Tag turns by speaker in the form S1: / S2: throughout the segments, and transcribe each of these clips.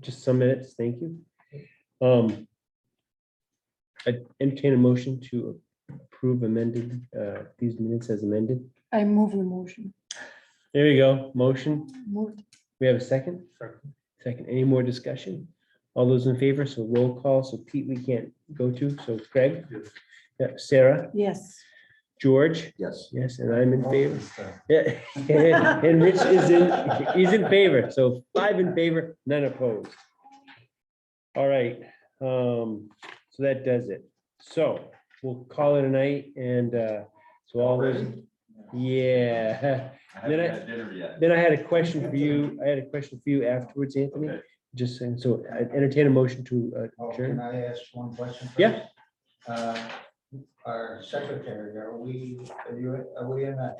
S1: just some minutes, thank you. Um, I entertain a motion to approve amended, uh, these minutes as amended.
S2: I move the motion.
S1: There you go, motion.
S2: Moved.
S1: We have a second? Second, any more discussion? All those in favor, so roll call, so Pete, we can't go to, so Craig? Yeah, Sarah,
S2: Yes.
S1: George,
S3: Yes.
S1: yes, and I'm in favor. Yeah, and Rich is in, he's in favor, so five in favor, none opposed. All right, um, so that does it. So we'll call it a night and, uh, so all those, yeah.
S3: I
S1: Then
S3: haven't
S1: I-
S3: had dinner yet.
S1: Then I had a question for you, I had a question for you afterwards, Anthony,
S3: Okay.
S1: just saying, so I entertain a motion to uh,
S4: Oh,
S1: adjourn.
S4: Can I ask one question? first?
S1: Yeah.
S4: Uh, Our secretary, are we, are you, are we in the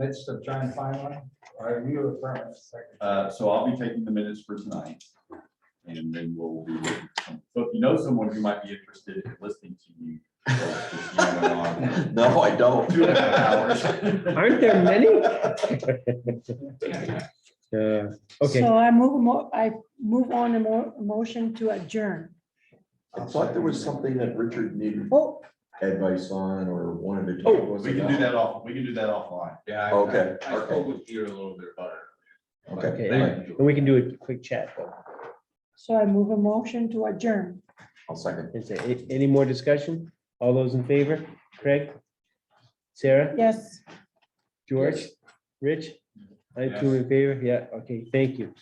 S4: midst of trying to find one? Are you a firm secretary?
S3: Uh, so I'll be taking the minutes for tonight. And then we'll be, looking for some- so if you know someone who might be interested in listening to you. No, I don't. Two and a half hours.
S1: Aren't there many? Uh, Okay,
S2: So I move, mo- I move on a mo- motion to adjourn.
S5: I thought there was something that Richard needed
S2: Oh,
S5: advice on or wanted to.
S3: Oh,
S5: talk
S3: we can do that off, we can do that offline.
S6: Yeah. I-
S5: Okay,
S6: I I spoke
S5: okay.
S6: with Peter a little bit about it. but
S5: Okay.
S6: they
S1: all right.
S6: can do it.
S1: and we can do a quick chat, though.
S2: so I move a motion to adjourn.
S5: I'll second.
S1: Is there a- any more discussion? All those in favor? Craig? Sarah?
S2: Yes.
S1: George? Rich? I two in favor, yeah, okay, thank you.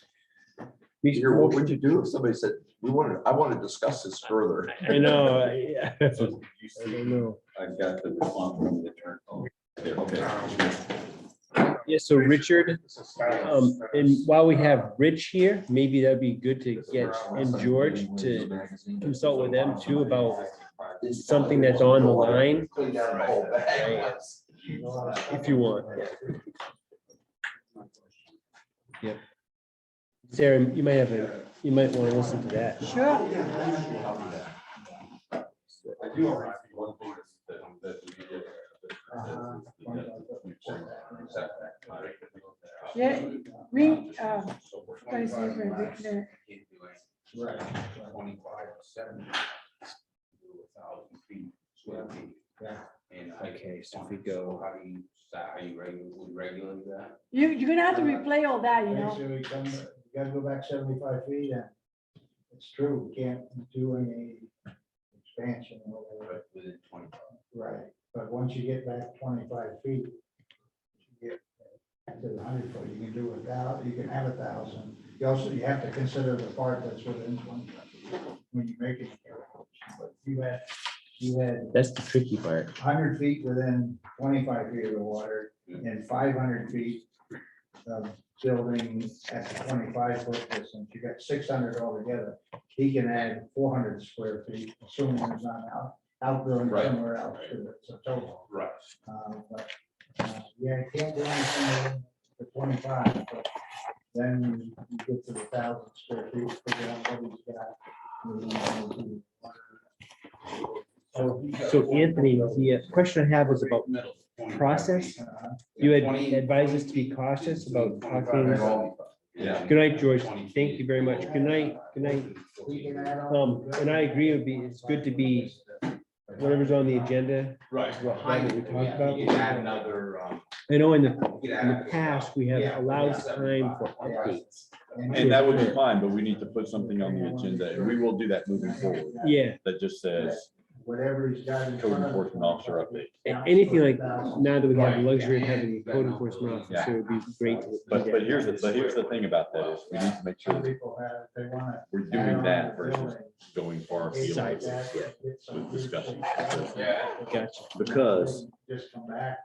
S1: We-
S5: Peter, what would you do if somebody said, we wanted, I want to discuss this further?
S1: I know, I
S3: So you
S1: I
S3: see,
S1: don't know.
S3: I've got the response from the attorney. Oh, there, Okay.
S1: Yeah, so Richard, um, and while we have Rich here, maybe that'd be good to get, and George to consult with them too about something that's on the line,
S5: Clean out the whole bag.
S1: if you want. Yep. Sarah, you might have, a you might want to listen to that.
S2: Sure.
S6: I do have one thing that, that we did.
S4: Uh-huh.
S2: Yeah, we, uh, guys, the-
S4: Right.
S6: Twenty-five, seventy. Thousand feet, square feet.
S4: Yeah.
S6: And I-
S1: Okay, so if we go.
S6: How do you, how you regulate, would regulate that?
S2: You, you're gonna have to replay all that, you
S4: Make
S2: know?
S4: sure we come, you gotta go back seventy-five feet and it's true, we can't do any expansion or whatever.
S6: But Within twenty.
S4: Right, but once you get back twenty-five feet, you get back to the hundred foot, you can do a thou, you can have a thousand. You also, you have to consider the part that's within twenty when you make it. But you had, you had
S1: That's the tricky part.
S4: hundred feet within twenty-five feet of the water and five hundred feet of building at the twenty-five foot distance. You got six hundred altogether. He can add four hundred square feet, assuming there's not out, outgrowing
S6: Right.
S4: somewhere else to it, so total.
S6: Right.
S4: Uh, but, uh, Yeah, you can't do anything with the twenty-five, but then you get to the thousand square feet, figure out what he's got.
S1: So Anthony, the uh, question I have is about process.
S4: Uh,
S1: You had advised us to be cautious about talking.
S6: Yeah.
S1: Good night, George. Thank you very much. Good night, good night.
S4: we can add on-
S1: Um, and I agree, it'd be, it's good to be, whatever's on the agenda.
S6: Right.
S1: is what Behind we it, talked yeah, about.
S6: You can add another, um.
S1: I know in the,
S6: you can
S1: in
S6: add-
S1: the past, we have allowed time for updates.
S3: And that would be fine, but we need to put something on the agenda and we will do that moving forward.
S1: Yeah,
S3: That just says
S4: Whatever he's got. in
S3: code
S4: front of him.
S3: enforcement officer update.
S1: a- anything like, now that we have the luxury of having a code enforcement officer, it'd be great. to look
S3: But,
S1: at.
S3: but here's the, but here's the thing about that is we need to make sure
S4: Some
S3: that
S4: people have, if they want
S3: we're
S4: to.
S3: doing that versus going far afield.
S1: Sizes,
S3: with discussion.
S6: Yeah.
S1: Gotcha.
S3: Because
S4: Just come back.